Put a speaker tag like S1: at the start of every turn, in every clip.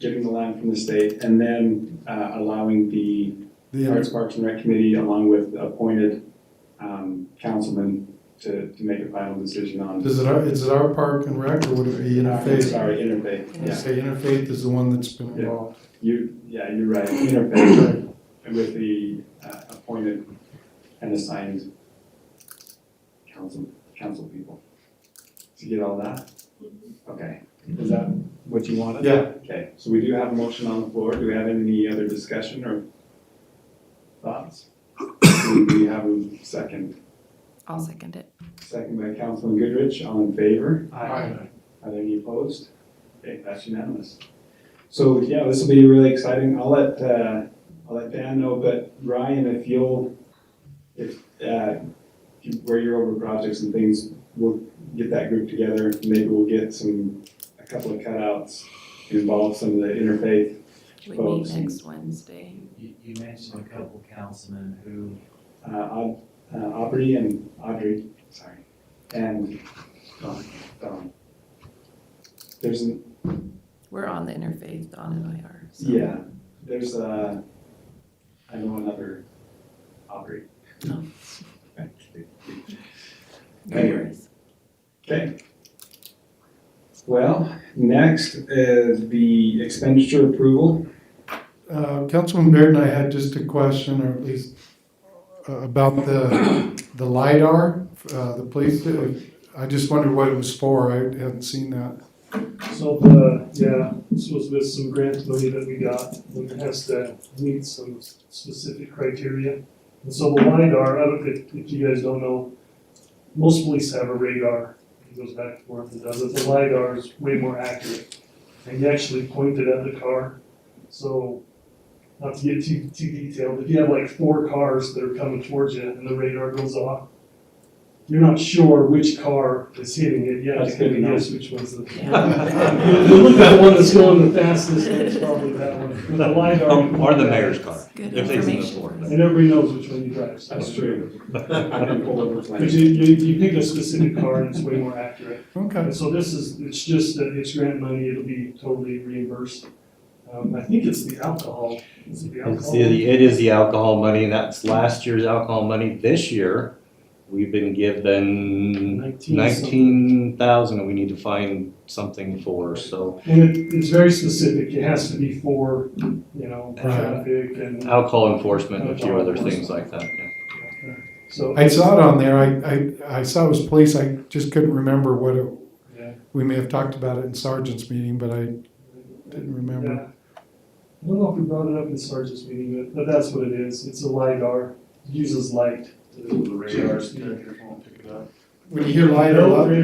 S1: getting the land from the state, and then uh, allowing the
S2: The
S1: Arts, Parks, and Rec Committee, along with appointed um, councilmen, to, to make a final decision on.
S2: Is it our, is it our park and rec, or would it be interfaith?
S1: Sorry, interfaith,
S2: You
S1: yeah.
S2: say interfaith is the one that's been involved.
S1: You, yeah, you're right, interfaith, with the uh, appointed and assigned council, council people. Did you get all that? Okay, is that what you wanted?
S2: Mm-hmm. Yeah,
S1: Okay, so we do have a motion on the floor. Do we have any other discussion or thoughts? Do we have a second?
S3: I'll second it.
S1: Second by Councilman Goodrich, all in favor?
S2: Aye.
S1: Are there any opposed? Okay, that's unanimous. So, yeah, this will be really exciting. I'll let, uh, I'll let Dan know, but Ryan, if you'll, if, uh, you- where you're over projects and things, we'll get that group together. Maybe we'll get some, a couple of cutouts, involve some of the interfaith
S3: We
S1: Folks.
S3: meet next Wednesday.
S4: You, you mentioned a couple councilmen who,
S1: uh, Au- uh, Aubrey and Audrey, sorry, and Dawn. Dawn. There's an,
S3: We're on the interfaith, Dawn and I are. so-
S1: yeah, there's a, I know another Aubrey.
S3: No. No
S1: Anyway.
S3: worries.
S1: Okay. Well, next is the expenditure approval.
S2: Uh, Councilman Baird and I had just a question, or at least uh, about the, the LiDAR, uh, the police, I just wondered what it was for, I hadn't seen that.
S5: So the, yeah, this was with some grant money that we got, and it has to meet some specific criteria. And so the LiDAR, I don't, if, if you guys don't know, most police have a radar, it goes back and forth, it does, it. the LiDAR is way more accurate. And you actually point it at the car, so, not to get too, too detailed, if you have like four cars that are coming towards you and the radar goes off, you're not sure which car is hitting it, you have
S1: That's
S5: to
S1: good to
S5: kind
S1: know.
S5: of guess which one's the
S3: Yeah.
S5: you look at the one that's going the fastest, and it's probably that one. The LiDAR.
S6: Or Um, the mayor's car.
S3: Good
S6: If they see the floor.
S3: information.
S5: And everybody knows which one you drive. so-
S1: That's true. I didn't pull over
S5: But
S1: plans.
S5: you, you, you pick a specific car and it's way more accurate.
S2: Okay,
S5: And so this is, it's just that it's grant money, it'll be totally reimbursed. Um, I think it's the alcohol, is it the
S6: It's
S5: alcohol?
S6: the, it is the alcohol money, that's last year's alcohol money. This year, we've been given
S5: Nineteen something.
S6: nineteen thousand, and we need to find something for, so
S5: And it, it's very specific, it has to be for, you know, traffic and,
S6: alcohol enforcement and a few other
S5: Alcohol
S6: things like that, yeah.
S5: so.
S2: I saw it on there, I, I, I saw it was police, I just couldn't remember what it,
S5: Yeah.
S2: we may have talked about it in sergeant's meeting, but I didn't remember.
S5: Yeah. I don't know if we brought it up in Sarge's meeting, but, but that's what it is. It's a LiDAR, It uses light. The radars.
S2: When you hear LiDAR, a lot, when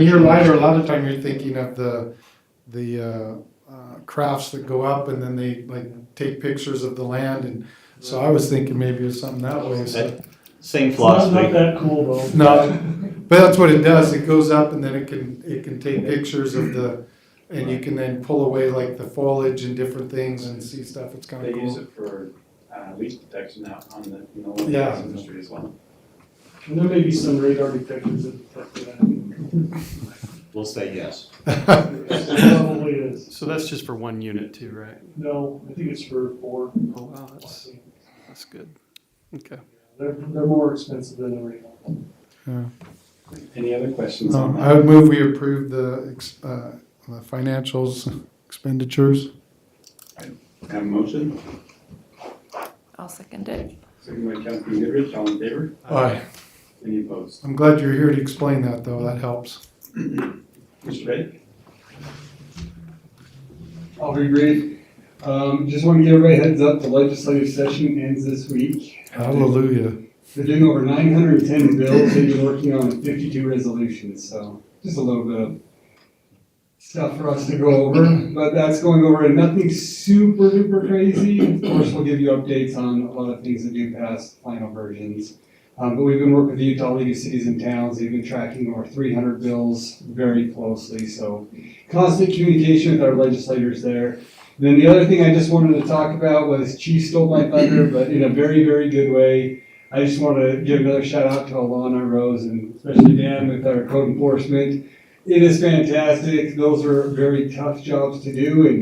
S2: you hear LiDAR, a lot of time you're thinking of the, the uh, uh, crafts that go up and then they like take pictures of the land and, so I was thinking maybe it was something that way, so.
S6: Same
S5: It's not, not
S6: philosophy.
S5: that cool though.
S2: No, but that's what it does, it goes up and then it can, it can take pictures of the, and you can then pull away like the foliage and different things and see stuff, it's kinda
S1: They use
S2: cool.
S1: it for uh, leak detection out on the, in the oil
S2: Yeah.
S1: industry as well.
S5: And there may be some radar detectors that detect that.
S6: We'll say yes.
S5: It Probably is.
S7: So that's just for one unit too, right?
S5: No, I think it's for four.
S7: Oh, wow, that's, that's good. Okay.
S5: They're, they're more expensive than the radar.
S1: Any other questions on
S2: No,
S1: that?
S2: I would move we approve the, ex- uh, the financials expenditures.
S1: Have a motion?
S3: I'll second it.
S1: Second by Councilman Goodrich, all in favor?
S2: Aye.
S1: Any opposed?
S2: I'm glad you're here to explain that though, that helps.
S1: Mr. Drake?
S8: I'll be brief. Um, just want to give everybody a heads up, the legislative session ends this week.
S2: Hallelujah.
S8: They're doing over nine hundred and ten bills, they've been working on fifty-two resolutions, so just a little bit of stuff for us to go over, but that's going over and nothing super duper crazy. Of course, we'll give you updates on a lot of things that do pass final versions. Um, but we've been working with the Utah League of Cities and Towns, they've been tracking over three hundred bills very closely, so constant communication with our legislators there. Then the other thing I just wanted to talk about was Chief stole my thunder, but in a very, very good way. I just want to give another shout out to Alana Rose and especially Dan with our code enforcement. It is fantastic. Those are very tough jobs to do and